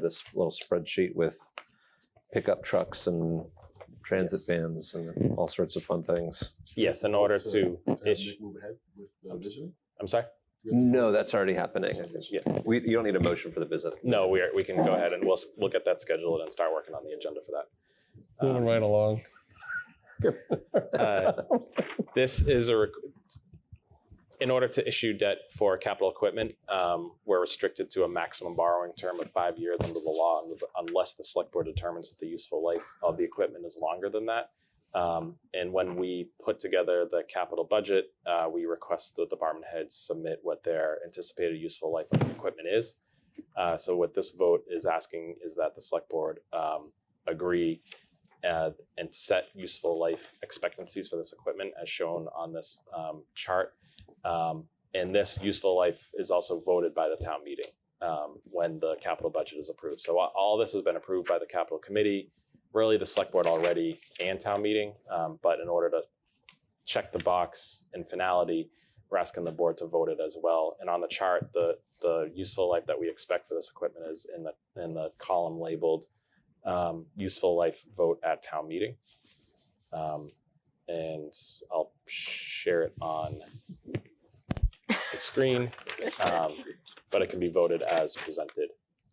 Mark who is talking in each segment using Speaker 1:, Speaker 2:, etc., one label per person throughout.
Speaker 1: this little spreadsheet with pickup trucks and transit
Speaker 2: Yes.
Speaker 1: vans and all sorts of fun things.
Speaker 2: Yes, in order to
Speaker 3: have
Speaker 2: ish.
Speaker 3: Nick Move ahead with the visioning?
Speaker 2: I'm sorry.
Speaker 3: We have to-
Speaker 1: No, that's already happening. I think.
Speaker 2: Yeah.
Speaker 1: We, you don't need a motion for the visit.
Speaker 2: No, we are, we can go ahead and we'll s- we'll get that scheduled and start working on the agenda for that.
Speaker 4: Moving
Speaker 2: Um,
Speaker 4: right along.
Speaker 2: Uh, This is a, requ- in order to issue debt for capital equipment, um, we're restricted to a maximum borrowing term of five years under the law un- unless the select board determines that the useful life of the equipment is longer than that. Um, And when we put together the capital budget, uh, we request the department heads submit what their anticipated useful life of the equipment is. Uh, So what this vote is asking is that the select board um, agree uh, and set useful life expectancies for this equipment as shown on this um, chart. Um, and this useful life is also voted by the town meeting um, when the capital budget is approved. So a- all this has been approved by the capital committee, really the select board already and town meeting. Um, but in order to check the box in finality, we're asking the board to vote it as well. And on the chart, the the useful life that we expect for this equipment is in the in the column labeled um, useful life vote at town meeting. Um, and I'll share it on the screen, um, but it can be voted as presented.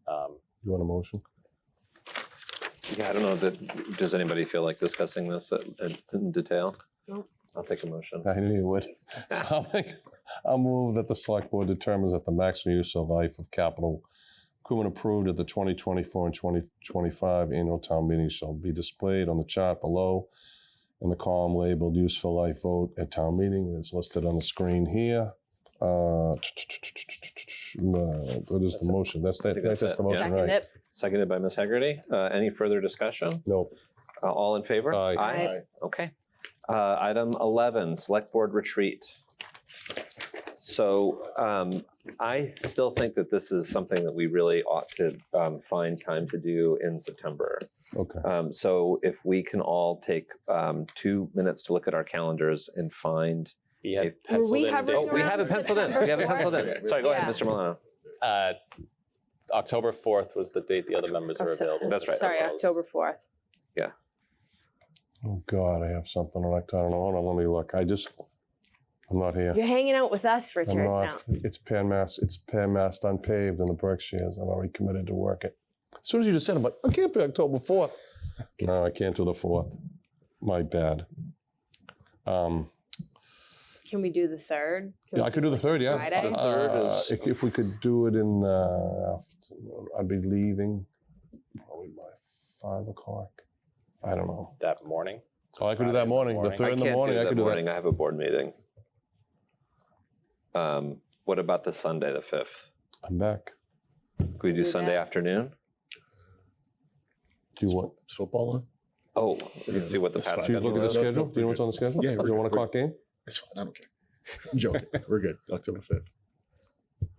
Speaker 2: Um,
Speaker 4: You want a motion?
Speaker 1: Yeah, I don't know that, does anybody feel like discussing this at- in- in detail?
Speaker 5: Nope.
Speaker 1: I'll take a motion.
Speaker 4: I knew you would. So I'll make, I'll move that the select board determines that the maximum use of life of capital equipment approved at the twenty twenty-four and twenty twenty-five annual town meeting shall be displayed on the chart below in the column labeled useful life vote at town meeting, and it's listed on the screen here. Uh, What is
Speaker 2: That's
Speaker 4: the
Speaker 2: it.
Speaker 4: motion? That's, that-
Speaker 1: think
Speaker 4: that's
Speaker 1: that's
Speaker 4: the
Speaker 1: it. Yeah.
Speaker 4: motion,
Speaker 5: Second
Speaker 4: right?
Speaker 5: it.
Speaker 1: Seconded by Ms. Hegarty. Uh, any further discussion?
Speaker 4: No,
Speaker 1: Uh, all in favor?
Speaker 4: Aye.
Speaker 5: Aye.
Speaker 3: Alright,
Speaker 1: Okay. Uh, item 11, select board retreat. So um, I still think that this is something that we really ought to um, find time to do in September.
Speaker 4: okay.
Speaker 1: Um, so if we can all take um, two minutes to look at our calendars and find.
Speaker 2: we had
Speaker 1: If-
Speaker 5: Were
Speaker 2: penciled
Speaker 5: we
Speaker 2: in
Speaker 5: hovering
Speaker 2: date-
Speaker 1: Oh, we have it
Speaker 5: around
Speaker 1: penciled in.
Speaker 5: September
Speaker 1: We have it penciled in.
Speaker 3: fourth?
Speaker 1: Sorry, go ahead,
Speaker 5: Yeah.
Speaker 1: Mr. Milano.
Speaker 2: uh, October fourth was the date the other members
Speaker 5: Oh,
Speaker 2: were
Speaker 5: so-
Speaker 2: available.
Speaker 1: That's right.
Speaker 5: Sorry, October fourth.
Speaker 4: Oh, God, I have something on October. Hold on, let me look. I just, I'm not here.
Speaker 5: You're hanging out with us,
Speaker 4: I'm
Speaker 5: Richard. Now.
Speaker 4: not. It's pan mass. It's pan massed unpaved in the Berkshires. I'm already committed to work it. As soon as you just said, I'm like, I can't be October fourth. No, I can't do the fourth. My bad. Um,
Speaker 5: Can we do the third? Can
Speaker 4: yeah,
Speaker 5: we
Speaker 4: I could do the third. Yeah,
Speaker 5: Friday? The
Speaker 1: third
Speaker 4: Uh,
Speaker 1: is-
Speaker 4: if, if we could do it in the afternoon, I'd be leaving probably by five o'clock. I don't know.
Speaker 2: That morning.
Speaker 4: Oh, I could do that morning. The
Speaker 2: morning.
Speaker 4: third in the morning, I
Speaker 1: that
Speaker 4: could do
Speaker 1: morning. I have a board meeting. Um, what about the Sunday, the 5th?
Speaker 4: that. I'm back.
Speaker 1: Could we do
Speaker 5: Do
Speaker 1: Sunday
Speaker 5: that.
Speaker 1: afternoon?
Speaker 4: Do you want?
Speaker 3: Is football on?
Speaker 1: Oh, we can see what the
Speaker 3: That's
Speaker 1: Pat's
Speaker 4: Do you
Speaker 1: schedule
Speaker 3: fine.
Speaker 4: look at the
Speaker 1: is.
Speaker 3: That's-
Speaker 4: schedule? Do you know what's on the schedule?
Speaker 3: Yeah,
Speaker 4: Is it
Speaker 3: we're-
Speaker 4: one o'clock game?
Speaker 3: It's fine, I don't care. I'm joking, we're good, October fifth.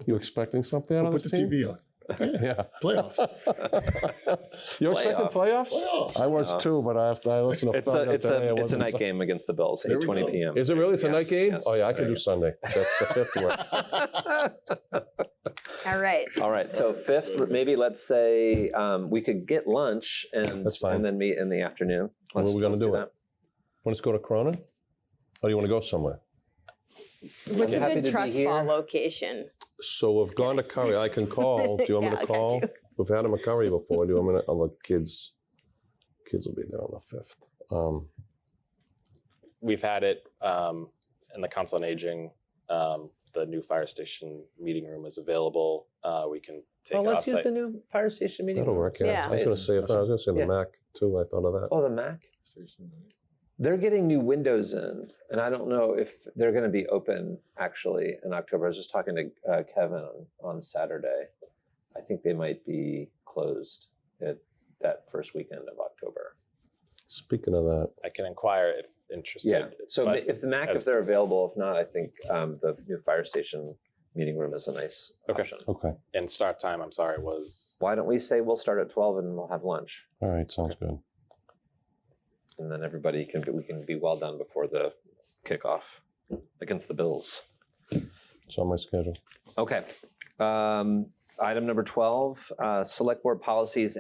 Speaker 4: You expecting something out
Speaker 3: We'll
Speaker 4: of
Speaker 3: put
Speaker 4: this
Speaker 3: the
Speaker 4: team?
Speaker 3: TV on,
Speaker 4: Yeah.
Speaker 3: playoffs.
Speaker 4: you expected playoffs? I
Speaker 3: Playoffs.
Speaker 4: was
Speaker 1: No.
Speaker 4: too, but I have to, I listened
Speaker 1: Uh-huh.
Speaker 4: to
Speaker 1: It's
Speaker 4: find
Speaker 1: a
Speaker 4: out
Speaker 1: it's
Speaker 4: today I
Speaker 1: a it's a
Speaker 4: wasn't
Speaker 1: night
Speaker 4: so-
Speaker 1: game against the Bills,
Speaker 3: There
Speaker 1: eight
Speaker 3: we
Speaker 1: twenty
Speaker 3: go.
Speaker 1: p.m.
Speaker 4: Is it really? It's a night
Speaker 1: Yes,
Speaker 4: game?
Speaker 1: yes.
Speaker 4: Oh yeah, I can
Speaker 3: Yeah.
Speaker 4: do Sunday. That's the fifth one.
Speaker 5: do- All right.
Speaker 1: All right, so fifth, maybe let's say um, we could get lunch and
Speaker 4: That's fine.
Speaker 1: and then meet in the afternoon.
Speaker 4: When are
Speaker 1: Let's-
Speaker 4: we gonna
Speaker 1: let's
Speaker 4: do it? Want to go to Corona? Oh, you want to go somewhere?
Speaker 5: What's
Speaker 1: happy
Speaker 5: a
Speaker 1: to
Speaker 5: good
Speaker 1: be
Speaker 5: trust
Speaker 1: here.
Speaker 5: fall location?
Speaker 4: So we've gone to curry. I can call. Do you want
Speaker 5: Yeah,
Speaker 4: me
Speaker 5: I
Speaker 4: to
Speaker 5: got
Speaker 4: call?
Speaker 5: you.
Speaker 4: We've had a McCurry before. Do you want me to? Oh, the kids, kids will be there on the fifth. Um,
Speaker 2: we've had it um, in the council on aging. Um, the new fire station meeting room is available. Uh, we can take
Speaker 1: Oh,
Speaker 2: it
Speaker 1: let's use
Speaker 2: offsite.
Speaker 1: the new fire station meeting.
Speaker 4: that'll
Speaker 1: room.
Speaker 4: work. Yeah. I was going to say. I was going to say the
Speaker 1: Yeah.
Speaker 4: Mac too. I thought of that.
Speaker 1: Oh, the Mac.
Speaker 3: Station, right?
Speaker 1: They're getting new windows in, and I don't know if they're going to be open actually in October. I was just talking to uh, Kevin on, on Saturday. I think they might be closed at that first weekend of October.
Speaker 4: Speaking of that,
Speaker 2: I can inquire if interested.
Speaker 1: Yeah. So ma-
Speaker 2: but
Speaker 1: if the Mac, if
Speaker 2: as-
Speaker 1: they're available, if not, I think um, the new fire station meeting room is a nice
Speaker 2: Okay.
Speaker 1: option.
Speaker 4: okay.
Speaker 2: and start time, I'm sorry, was
Speaker 1: Why don't we say we'll start at twelve and we'll have lunch,
Speaker 4: All right. Sounds good.
Speaker 1: and then everybody can we can be well done before the kickoff against the Bills.
Speaker 4: It's on my schedule.
Speaker 1: Okay. Um, Item number 12, uh, Select Board Policies